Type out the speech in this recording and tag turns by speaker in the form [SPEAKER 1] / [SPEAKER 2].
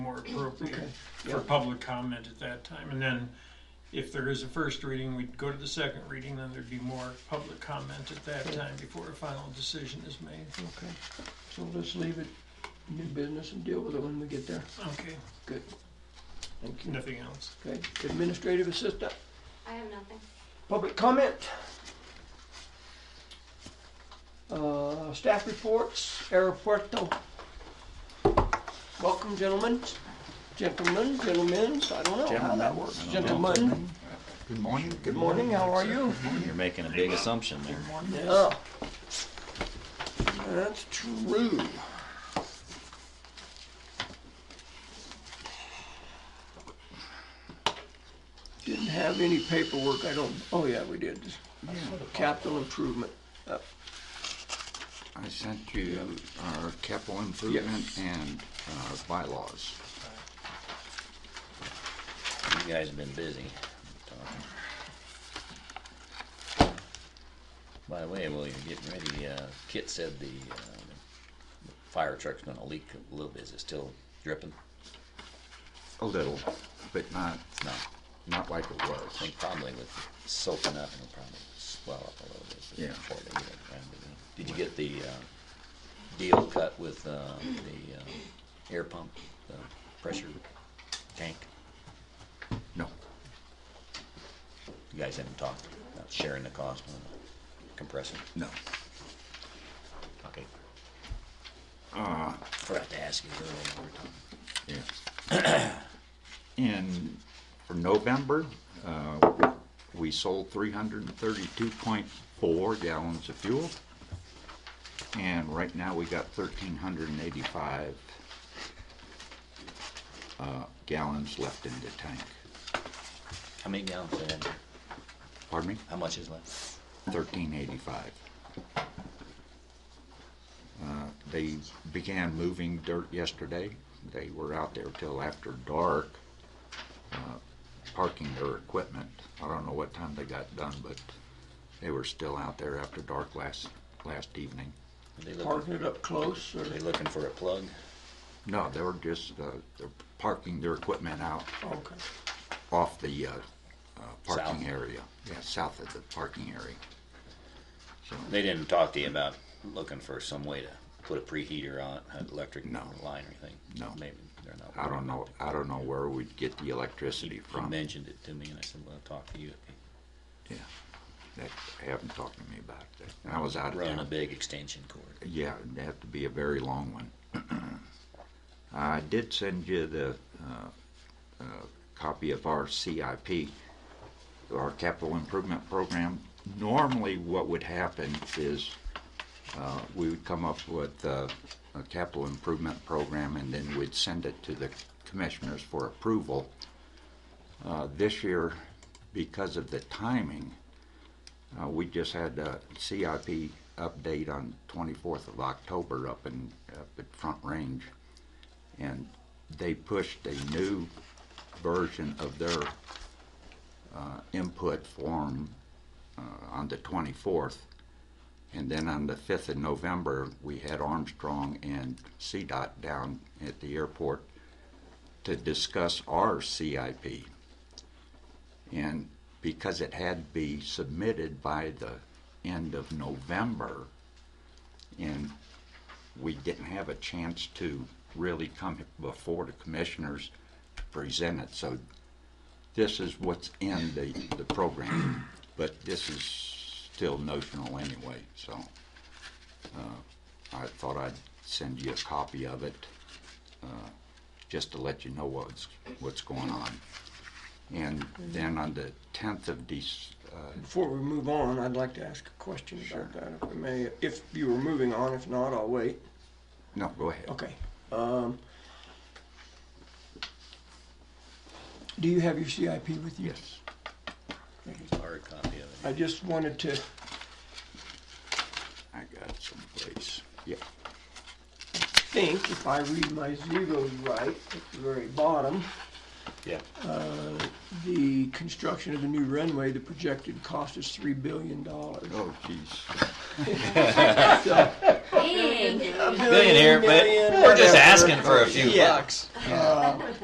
[SPEAKER 1] more appropriate
[SPEAKER 2] Okay,
[SPEAKER 1] for
[SPEAKER 2] yeah.
[SPEAKER 1] public comment at that time. And then if there is a first reading, we'd go to the second reading, then there'd be more public comment at that time before a final decision is made.
[SPEAKER 2] Okay, so let's leave it new business and deal with it when we get there.
[SPEAKER 1] Okay,
[SPEAKER 2] Good. Thank you.
[SPEAKER 1] nothing else.
[SPEAKER 2] Okay, administrative assistant,
[SPEAKER 3] I have nothing.
[SPEAKER 2] public comment. Uh, staff reports, aeropuerto. Welcome, gentlemen, gentlemen, gentlemen, I don't know how that works. Gentlemen,
[SPEAKER 4] Good morning.
[SPEAKER 2] good morning, how are you?
[SPEAKER 5] You're making a big assumption there.
[SPEAKER 2] Yeah. Oh. That's true. Didn't have any paperwork, I don't, oh yeah, we did,
[SPEAKER 4] Yeah,
[SPEAKER 2] capital improvement. Uh,
[SPEAKER 4] I sent you our capital improvement and our bylaws.
[SPEAKER 5] You guys have been busy. By the way, while you're getting ready, uh, Kit said the, um, the fire truck's gonna leak a little bit. Is it still dripping?
[SPEAKER 4] A little, but not,
[SPEAKER 5] No,
[SPEAKER 4] not like it
[SPEAKER 5] I
[SPEAKER 4] was.
[SPEAKER 5] think probably with soaking up, it'll probably swell up a little bit.
[SPEAKER 4] Yeah.
[SPEAKER 5] before they get it around to doing it. Did you get the, uh, deal cut with, uh, the, uh, air pump, the pressure tank?
[SPEAKER 4] No,
[SPEAKER 5] You guys haven't talked about sharing the cost on the compressor?
[SPEAKER 4] no.
[SPEAKER 5] Okay.
[SPEAKER 4] Uh,
[SPEAKER 5] Ah, Forgot to ask you earlier when we were talking.
[SPEAKER 4] yeah. In, for November, uh, we sold three hundred and thirty-two point four gallons of fuel. And right now, we got thirteen hundred and eighty-five uh, gallons left in the tank.
[SPEAKER 5] How many gallons is that?
[SPEAKER 4] Pardon me?
[SPEAKER 5] How much is left?
[SPEAKER 4] thirteen eighty-five. Uh, They began moving dirt yesterday. They were out there till after dark, uh, parking their equipment. I don't know what time they got done, but they were still out there after dark last, last evening.
[SPEAKER 5] Are they
[SPEAKER 2] Parking
[SPEAKER 5] looking,
[SPEAKER 2] it up close, or,
[SPEAKER 5] are they looking for a plug?
[SPEAKER 4] No, they were just, uh, they're parking their equipment out
[SPEAKER 2] okay,
[SPEAKER 4] off the uh, uh,
[SPEAKER 5] South.
[SPEAKER 4] parking area. Yeah, south of the parking area. So,
[SPEAKER 5] They didn't talk to you about looking for some way to put a preheater on, an electric
[SPEAKER 4] No.
[SPEAKER 5] line or anything?
[SPEAKER 4] No.
[SPEAKER 5] Maybe they're not.
[SPEAKER 4] I don't know, I don't know where we'd get the electricity
[SPEAKER 5] He,
[SPEAKER 4] from.
[SPEAKER 5] he mentioned it to me and I said, well, I'll talk to you.
[SPEAKER 4] Yeah, that, they haven't talked to me about that. And I was out of
[SPEAKER 5] Run a
[SPEAKER 4] town.
[SPEAKER 5] big extension cord.
[SPEAKER 4] Yeah, it'd have to be a very long one. I did send you the, uh, uh, copy of our CIP, our capital improvement program. Normally, what would happen is, uh, we would come up with, uh, a capital improvement program and then we'd send it to the commissioners for approval. Uh, this year, because of the timing, uh, we just had a CIP update on 24th of October up in, up at Front Range. And they pushed a new version of their, uh, input form, uh, on the 24th. And then on the 5th of November, we had Armstrong and CDOT down at the airport to discuss our CIP. And because it had to be submitted by the end of November, and we didn't have a chance to really come before the commissioners to present it, so this is what's in the, the program, but this is still notional anyway, so. uh, I thought I'd send you a copy of it, uh, just to let you know what's, what's going on. And then on the tenth of Dec, uh,
[SPEAKER 2] before we move on, I'd like to ask a question about that, if I may, if you were moving on, if not, I'll wait.
[SPEAKER 4] no, go ahead.
[SPEAKER 2] Okay. Um, do you have your CIP with you?
[SPEAKER 4] Yes,
[SPEAKER 5] Hard copy of it.
[SPEAKER 2] I just wanted to,
[SPEAKER 4] I got it someplace. Yeah,
[SPEAKER 2] think if I read my zeros right at the very bottom,
[SPEAKER 5] Yeah.
[SPEAKER 2] The construction of the new runway, the projected cost is three billion dollars.
[SPEAKER 4] Oh, geez.
[SPEAKER 3] Dang.
[SPEAKER 5] Millionaire, but we're just asking for a few bucks.